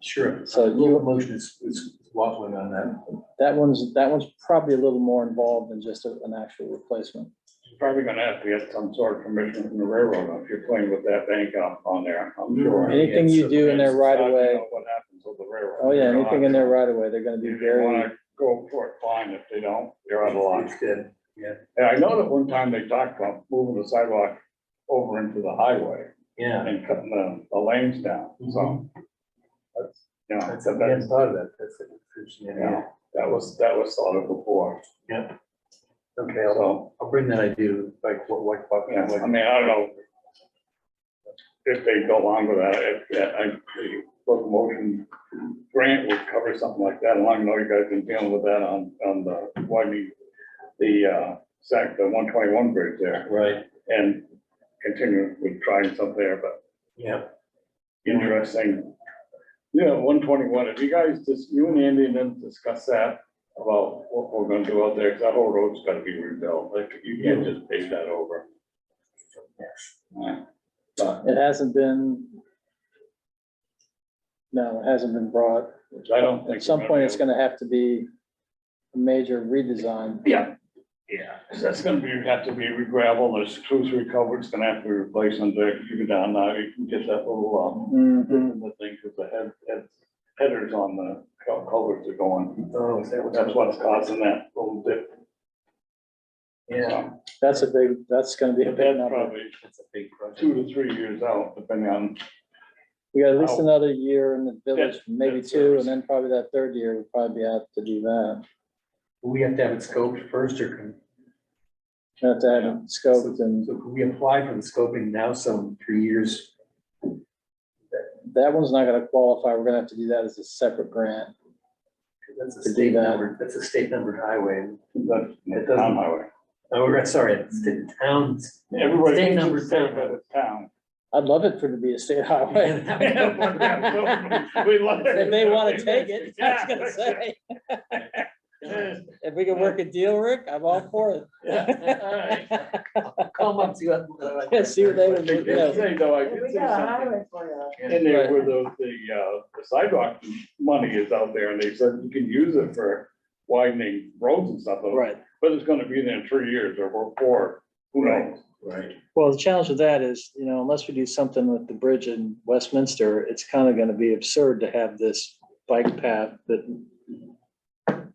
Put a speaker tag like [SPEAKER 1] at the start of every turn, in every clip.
[SPEAKER 1] Sure.
[SPEAKER 2] So
[SPEAKER 1] The
[SPEAKER 2] you,
[SPEAKER 1] motion is, is waffling on that.
[SPEAKER 2] that one's, that one's probably a little more involved than just a- an actual replacement.
[SPEAKER 3] You're Probably gonna have to get some sort of permission from the railroad if you're playing with that bank up on there, I'm sure.
[SPEAKER 2] Anything Mm-hmm. you do in their right of
[SPEAKER 3] I
[SPEAKER 2] way,
[SPEAKER 3] don't know What happens with the railroad?
[SPEAKER 2] oh yeah, anything in their right of way, they're gonna be
[SPEAKER 3] If they
[SPEAKER 2] very,
[SPEAKER 3] wanna go for it, fine, if they don't, you're out of line.
[SPEAKER 1] It's dead.
[SPEAKER 3] And I know that one time they talked about moving the sidewalk over into the highway
[SPEAKER 1] Yeah,
[SPEAKER 3] and cutting the, the lanes down,
[SPEAKER 2] Mm-hmm.
[SPEAKER 3] so. That's, you know,
[SPEAKER 1] that's,
[SPEAKER 3] that's,
[SPEAKER 1] I hadn't thought of that, that's a description,
[SPEAKER 3] you
[SPEAKER 1] yeah.
[SPEAKER 3] know, that was, that was thought of before,
[SPEAKER 1] Okay, I'll,
[SPEAKER 3] so.
[SPEAKER 1] I'll bring that idea, like, what, what, what-
[SPEAKER 3] Yeah, I
[SPEAKER 1] what-
[SPEAKER 3] mean, I don't know. If they go along with that, if, yeah, I, the locomotion grant would cover something like that, and I know you guys been dealing with that on, on the, widening the, uh, sac, the one twenty-one bridge there,
[SPEAKER 1] Right,
[SPEAKER 3] and continue with trying something there, but
[SPEAKER 1] yeah.
[SPEAKER 3] interesting. Yeah, one twenty-one, if you guys, just, you and Andy and them discuss that about what we're gonna do out there, because that whole road's gotta be rebuilt, like, you can't just pave that over. But
[SPEAKER 2] it hasn't been. No, it hasn't been brought.
[SPEAKER 3] I don't think.
[SPEAKER 2] At some point, it's gonna have to be a major redesign.
[SPEAKER 3] Yeah, yeah, 'cause that's gonna be, have to be re-gravel, there's two, three culverts gonna have to be replaced on there, you go down now, you can get that little, um,
[SPEAKER 2] Mhm.
[SPEAKER 3] the thing, because the head, head, headers on the cul- culverts are going,
[SPEAKER 1] Oh, is that what?
[SPEAKER 3] that's what's causing that little dip.
[SPEAKER 1] Yeah.
[SPEAKER 3] So,
[SPEAKER 2] That's a big, that's gonna be a
[SPEAKER 3] But
[SPEAKER 2] big
[SPEAKER 3] that's
[SPEAKER 2] number.
[SPEAKER 3] probably
[SPEAKER 1] That's a big project.
[SPEAKER 3] two to three years out, depending on,
[SPEAKER 2] We got at least
[SPEAKER 3] Wow.
[SPEAKER 2] another year in the village,
[SPEAKER 3] That's-
[SPEAKER 2] maybe
[SPEAKER 3] that's
[SPEAKER 2] two,
[SPEAKER 3] serious.
[SPEAKER 2] and then probably that third year, we'd probably be out to do that.
[SPEAKER 1] Do We have to have it scoped first, or can,
[SPEAKER 2] We Have to have it scoped and
[SPEAKER 1] so can we apply for the scoping now, some three years?
[SPEAKER 2] that one's not gonna qualify. We're gonna have to do that as a separate grant.
[SPEAKER 1] 'Cause That's a
[SPEAKER 2] To do
[SPEAKER 1] state
[SPEAKER 2] that.
[SPEAKER 1] numbered, that's a state numbered highway.
[SPEAKER 3] the the
[SPEAKER 1] It doesn't-
[SPEAKER 3] town highway.
[SPEAKER 1] Oh, we're, sorry, it's the towns.
[SPEAKER 3] Everybody
[SPEAKER 1] State
[SPEAKER 3] thinks
[SPEAKER 1] number
[SPEAKER 3] it's state,
[SPEAKER 1] seven.
[SPEAKER 3] but it's town.
[SPEAKER 2] I'd love it for it to be a state highway.
[SPEAKER 3] We love it.
[SPEAKER 2] If they wanna take it, I was gonna say,
[SPEAKER 3] Yeah.
[SPEAKER 2] if we can work a deal, Rick, I'm all for
[SPEAKER 1] Alright.
[SPEAKER 2] it.
[SPEAKER 1] I'll Come up to you.
[SPEAKER 2] Yeah, see what they would do,
[SPEAKER 3] I did say, though, I did
[SPEAKER 4] We
[SPEAKER 3] say
[SPEAKER 4] got a
[SPEAKER 3] something.
[SPEAKER 4] highway for you.
[SPEAKER 3] in there where the, the, uh, the sidewalk money is out there, and they said you can use it for widening roads and stuff.
[SPEAKER 2] Right.
[SPEAKER 3] But it's gonna be there in three years or four, who knows?
[SPEAKER 1] Right.
[SPEAKER 2] Well, the challenge with that is, you know, unless we do something with the bridge in Westminster, it's kind of going to be absurd to have this bike path that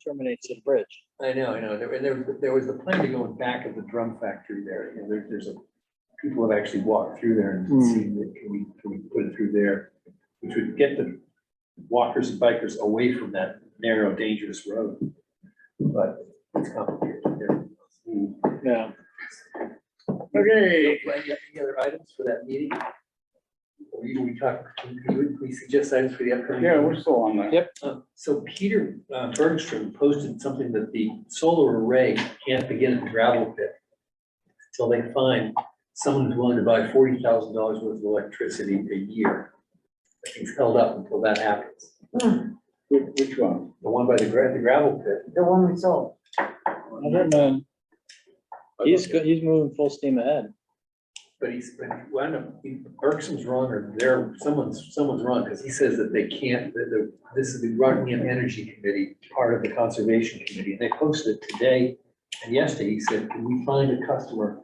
[SPEAKER 2] terminates at a bridge.
[SPEAKER 1] I know, I know. There, there, there was the plan to go in back of the drum factory there. You know, there, there's a, people have actually walked through there and
[SPEAKER 2] Hmm.
[SPEAKER 1] seen that, can we, can we put it through there? Which would get the walkers and bikers away from that narrow, dangerous road. But it's complicated. There-
[SPEAKER 2] Yeah.
[SPEAKER 3] Okay.
[SPEAKER 1] Glenn, you have any other items for that meeting? Or you, we talk, we, we suggest items for the upcoming.
[SPEAKER 3] Yeah, we're still on that.
[SPEAKER 2] Yep.
[SPEAKER 1] Uh, So Peter uh, Bergstrom posted something that the solar array can't begin at the gravel pit until they find someone who's willing to buy forty thousand dollars worth of electricity a year. That thing's held up until that happens.
[SPEAKER 4] Hmm,
[SPEAKER 3] Which, which one?
[SPEAKER 1] The one by the gra- the gravel pit.
[SPEAKER 4] The one we sold.
[SPEAKER 2] He's, go- he's moving full steam ahead.
[SPEAKER 1] But he's, but he- well, I don't know, he- Bergstrom's wrong or there, someone's, someone's wrong because he says that they can't, that the, this is the Rockingham Energy Committee, part of the Conservation Committee. And they posted it today and yesterday. He said, can we find a customer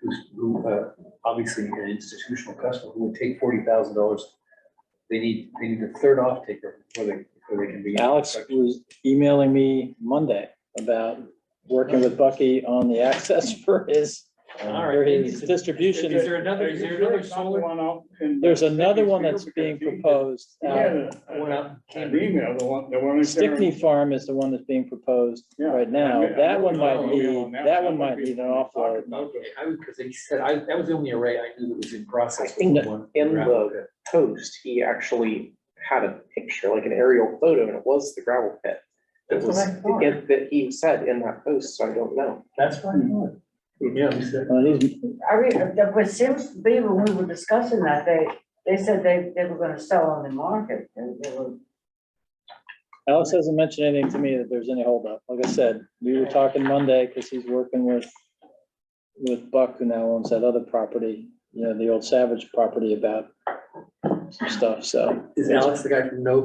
[SPEAKER 1] who's, who, uh, obviously an institutional customer who would take forty thousand dollars? They need, they need a third off taker before they, before they can be.
[SPEAKER 2] Alex was emailing me Monday about working with Bucky on the access for his,
[SPEAKER 1] All
[SPEAKER 2] for
[SPEAKER 1] right.
[SPEAKER 2] his distribution.
[SPEAKER 1] Is there another- is
[SPEAKER 3] Are you
[SPEAKER 1] there
[SPEAKER 3] sure
[SPEAKER 1] another
[SPEAKER 3] it's not the
[SPEAKER 1] solar-
[SPEAKER 3] one out in-
[SPEAKER 2] There's another one that's
[SPEAKER 3] Because
[SPEAKER 2] being
[SPEAKER 3] he did-
[SPEAKER 2] proposed. uh,
[SPEAKER 3] he
[SPEAKER 2] out-
[SPEAKER 3] had
[SPEAKER 1] I
[SPEAKER 3] a-
[SPEAKER 1] went out
[SPEAKER 3] a-
[SPEAKER 1] and
[SPEAKER 3] An email, the one, the one. that's there.
[SPEAKER 2] Stickney Farm is the one that's being proposed
[SPEAKER 3] Yeah.
[SPEAKER 2] right now.
[SPEAKER 3] Yeah, Oh, I
[SPEAKER 2] That one
[SPEAKER 3] know
[SPEAKER 2] might
[SPEAKER 3] the
[SPEAKER 2] be,
[SPEAKER 3] email on
[SPEAKER 2] that one might need an offload.
[SPEAKER 1] Okay, I would, because he said, I, that was the only array I knew that was in process.
[SPEAKER 5] I think
[SPEAKER 1] was the one-
[SPEAKER 5] in
[SPEAKER 1] gravel
[SPEAKER 5] the-
[SPEAKER 1] pit.
[SPEAKER 5] post, he actually had a picture, like an aerial photo, and it was the gravel pit. It
[SPEAKER 1] That's what
[SPEAKER 5] was,
[SPEAKER 1] I thought.
[SPEAKER 5] it- that he said in that post, so I don't know.
[SPEAKER 1] That's what I thought. Yeah, he said,
[SPEAKER 2] Well, Uh, he's-
[SPEAKER 4] I mean, that was seems to be when we were discussing that, they, they said they, they were gonna sell on the market. and they were-
[SPEAKER 2] Alex hasn't mentioned anything to me that there's any holdup. Like I said, we were talking Monday because he's working with, with Buck, who now owns that other property, you know, the old Savage property about some stuff, so.
[SPEAKER 1] is Alex the guy from No